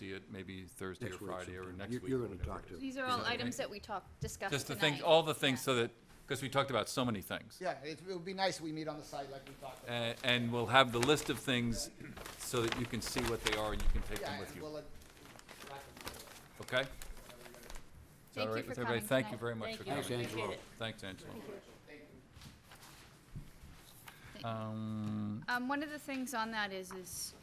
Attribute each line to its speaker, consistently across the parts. Speaker 1: it maybe Thursday or
Speaker 2: Next week
Speaker 1: Friday or
Speaker 2: sometime.
Speaker 1: next
Speaker 2: You-
Speaker 1: week.
Speaker 2: You're
Speaker 1: or
Speaker 2: gonna
Speaker 1: whatever
Speaker 2: talk
Speaker 1: it is.
Speaker 2: to.
Speaker 3: These are all items that we talked, discussed
Speaker 1: Just the
Speaker 3: tonight.
Speaker 1: things, all the things
Speaker 3: Yeah.
Speaker 1: so that, because we talked about so many things.
Speaker 4: Yeah, it it would be nice we meet on the site like we talked about.
Speaker 1: A- And we'll have the list of things so that you can see what they are and you can take
Speaker 4: Yeah,
Speaker 1: them with
Speaker 4: and
Speaker 1: you,
Speaker 4: we'll, uh,
Speaker 1: okay? Is that
Speaker 3: Thank
Speaker 1: all
Speaker 3: you
Speaker 1: right
Speaker 3: for
Speaker 1: with everybody?
Speaker 3: coming
Speaker 1: Thank you
Speaker 3: tonight.
Speaker 1: very much
Speaker 3: Thank
Speaker 1: for
Speaker 3: you.
Speaker 1: coming.
Speaker 2: Thanks, Angelo.
Speaker 1: Thanks, Angela. Um,
Speaker 3: Um, one of the things on that is, is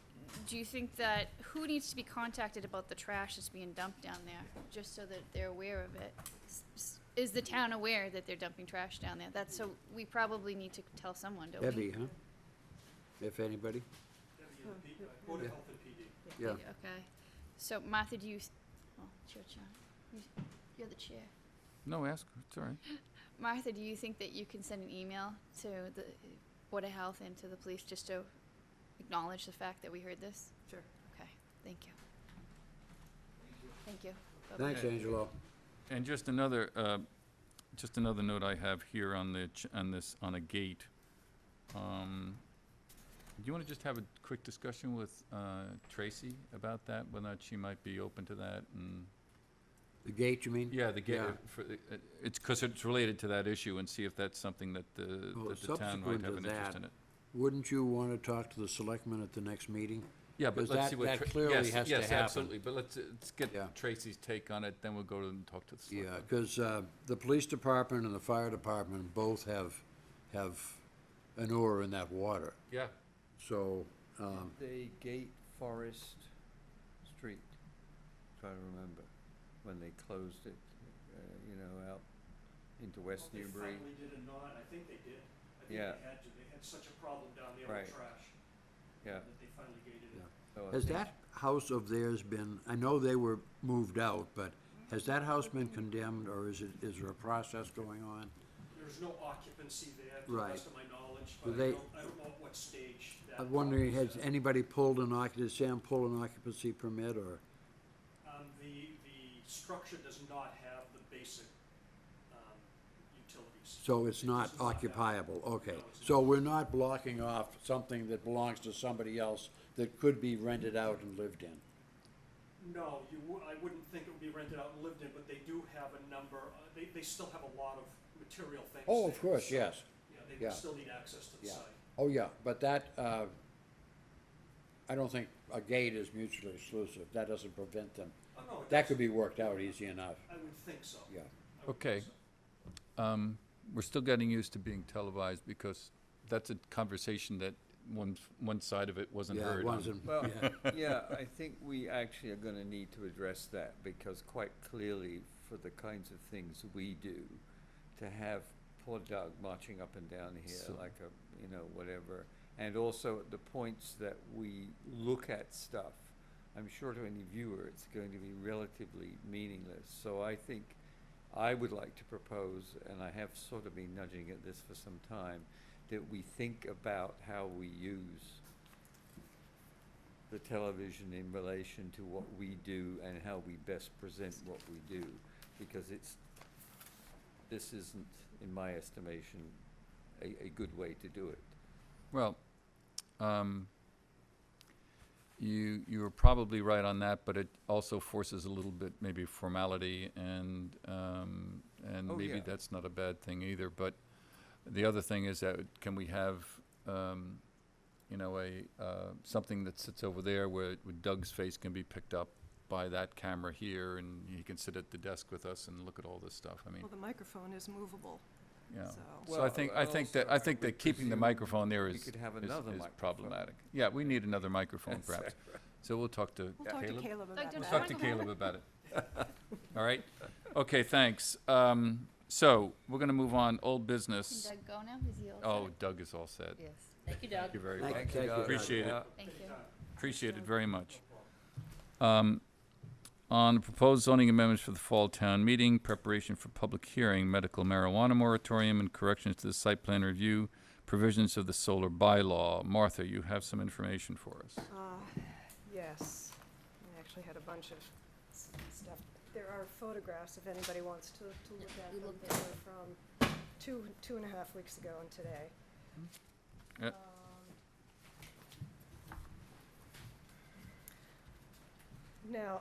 Speaker 3: do you think that, who needs to be contacted about the trash that's being dumped down there? Just so that they're aware of it. S- s- Is the town aware that they're dumping trash down there? That's, so we probably need to tell someone, don't
Speaker 2: Debbie,
Speaker 3: we?
Speaker 2: huh? If anybody? Yeah. Yeah,
Speaker 3: Okay. So Martha, do you, s- oh, it's your turn. You- You're the chair.
Speaker 1: No, ask, her, it's all right.
Speaker 3: Martha, do you think that you can send an email to the Board of Health and to the police just to acknowledge the fact that we heard this?
Speaker 5: Sure.
Speaker 3: Okay, thank you. Thank you. Bye-bye.
Speaker 2: thanks, Angelo.
Speaker 1: And just another, uh, just another note I have here on the, ch- on this, on a gate. Um, Do you want to just have a quick discussion with uh, Tracy about that, whether or not she might be open to that and?
Speaker 2: The gate, you mean?
Speaker 1: Yeah, the gate,
Speaker 2: Yeah.
Speaker 1: uh, for, the- uh, it's, because it's related to that issue and see if that's something that the,
Speaker 2: Well,
Speaker 1: that the town might
Speaker 2: subsequent
Speaker 1: have
Speaker 2: to
Speaker 1: an interest
Speaker 2: that-
Speaker 1: in it.
Speaker 2: Wouldn't you want to talk to the selectmen at the next meeting?
Speaker 1: Yeah, but
Speaker 2: Because
Speaker 1: let's
Speaker 2: that-
Speaker 1: see what.
Speaker 2: that
Speaker 1: Tra-
Speaker 2: clearly
Speaker 1: yes,
Speaker 2: has to
Speaker 1: yes,
Speaker 2: happen.
Speaker 1: absolutely, but let's, uh, let's
Speaker 2: Yeah.
Speaker 1: get Tracy's take on it, then we'll go to and talk to the
Speaker 2: Yeah,
Speaker 1: selectmen.
Speaker 2: because the police department and the fire department both have, have an oar in that water.
Speaker 1: Yeah,
Speaker 2: So, um,
Speaker 6: They gate Forest Street, trying to remember, when they closed it, uh, you know, out into West
Speaker 7: They
Speaker 6: Newbury.
Speaker 7: finally did or not, I think they did. I
Speaker 6: Yeah.
Speaker 7: think they had to, they had such a problem down there with
Speaker 6: Right.
Speaker 7: trash.
Speaker 6: Yeah.
Speaker 7: That they finally gated it.
Speaker 6: so Oh, I
Speaker 2: has
Speaker 6: think-
Speaker 2: that house of theirs been, I know they were moved out, but has that house been condemned, or is it, is there a process going on?
Speaker 7: There's no occupancy there, to the
Speaker 2: Right.
Speaker 7: best of my knowledge,
Speaker 2: Do
Speaker 7: but I
Speaker 2: they-
Speaker 7: don't, I don't know at what stage that.
Speaker 2: I'm wondering, has
Speaker 7: process is.
Speaker 2: anybody pulled an occup, did Sam pull an occupancy permit, or?
Speaker 7: Um, the, the structure does not have the basic, um, utilities.
Speaker 2: So it's not
Speaker 7: It's not that.
Speaker 2: occupiable, okay.
Speaker 7: No, it's
Speaker 2: So we're not blocking off something that belongs to somebody else that could be rented out and lived in.
Speaker 7: No, you, wou- I wouldn't think it would be rented out and lived in, but they do have a number, uh, they, they still have a lot of material things.
Speaker 2: Oh, of
Speaker 7: there,
Speaker 2: course,
Speaker 7: so,
Speaker 2: yes,
Speaker 7: Yeah, they
Speaker 2: yeah.
Speaker 7: would still need access to the
Speaker 2: yeah.
Speaker 7: site.
Speaker 2: Oh, yeah, but that, uh, I don't think a gate is mutually exclusive. That doesn't prevent them.
Speaker 7: Oh, no, it
Speaker 2: That
Speaker 7: doesn't.
Speaker 2: could be worked out easy enough,
Speaker 7: I would think so.
Speaker 2: yeah.
Speaker 7: I would
Speaker 1: okay.
Speaker 7: think so.
Speaker 1: Um, We're still getting used to being televised because that's a conversation that one, one side of it wasn't
Speaker 2: Yeah,
Speaker 1: heard.
Speaker 2: it
Speaker 1: on-
Speaker 2: wasn't,
Speaker 6: Well,
Speaker 2: yeah,
Speaker 6: yeah, I think we actually are gonna need to address that, because quite clearly, for the kinds of things we do, to have poor Doug marching up and down
Speaker 1: So-
Speaker 6: here like a, you know, whatever, and also at the points that we look at stuff, I'm sure to any viewer, it's going to be relatively meaningless, so I think I would like to propose, and I have sort of been nudging at this for some time, that we think about how we use the television in relation to what we do and how we best present what we do, because it's, this isn't, in my estimation, a, a good way to do it.
Speaker 1: Well, um, you, you were probably right on that, but it also forces a little bit maybe formality and, um, and
Speaker 6: Oh,
Speaker 1: maybe
Speaker 6: yeah.
Speaker 1: that's not a bad thing either, but the other thing is that can we have, um, you know, a, uh, something that sits over there where Doug's face can be picked up by that camera here and he can sit at the desk with us and look at all this stuff, I mean,
Speaker 5: Well, the microphone is movable,
Speaker 1: yeah.
Speaker 5: so.
Speaker 1: So I think, I
Speaker 6: Well,
Speaker 1: think that,
Speaker 6: also,
Speaker 1: I
Speaker 6: I
Speaker 1: think
Speaker 6: would
Speaker 1: that keeping the
Speaker 6: presume
Speaker 1: microphone there
Speaker 6: we
Speaker 1: is,
Speaker 6: could have
Speaker 1: is-
Speaker 6: another
Speaker 1: is
Speaker 6: microphone.
Speaker 1: problematic. Yeah, we need another microphone perhaps. So we'll talk to
Speaker 5: We'll talk to
Speaker 1: Caleb.
Speaker 5: Caleb
Speaker 3: Like,
Speaker 5: about
Speaker 3: don't
Speaker 1: We'll
Speaker 3: Caleb.
Speaker 1: talk
Speaker 5: that.
Speaker 1: to Caleb about it. All right? Okay, thanks. Um, so, we're gonna move on, old
Speaker 3: Can
Speaker 1: business.
Speaker 3: Doug go now? Is he all set?
Speaker 1: Oh, Doug is all set.
Speaker 8: Yes, thank you, Doug.
Speaker 1: You're very
Speaker 2: Thank-
Speaker 1: welcome.
Speaker 2: thank you.
Speaker 1: Appreciate it.
Speaker 6: Yeah.
Speaker 3: Thank you.
Speaker 1: Appreciate it very much. Um, On the proposed zoning amendments for the fall town meeting, preparation for public hearing, medical marijuana moratorium and corrections to the site plan review, provisions of the solar bylaw. Martha, you have some information for us.
Speaker 5: Uh, Yes, I actually had a bunch of s- stuff. There are photographs if anybody wants to, to look at
Speaker 8: we
Speaker 5: them.
Speaker 8: looked
Speaker 5: They were from two, two and a half weeks ago and today.
Speaker 1: Yeah.
Speaker 5: Um, Now,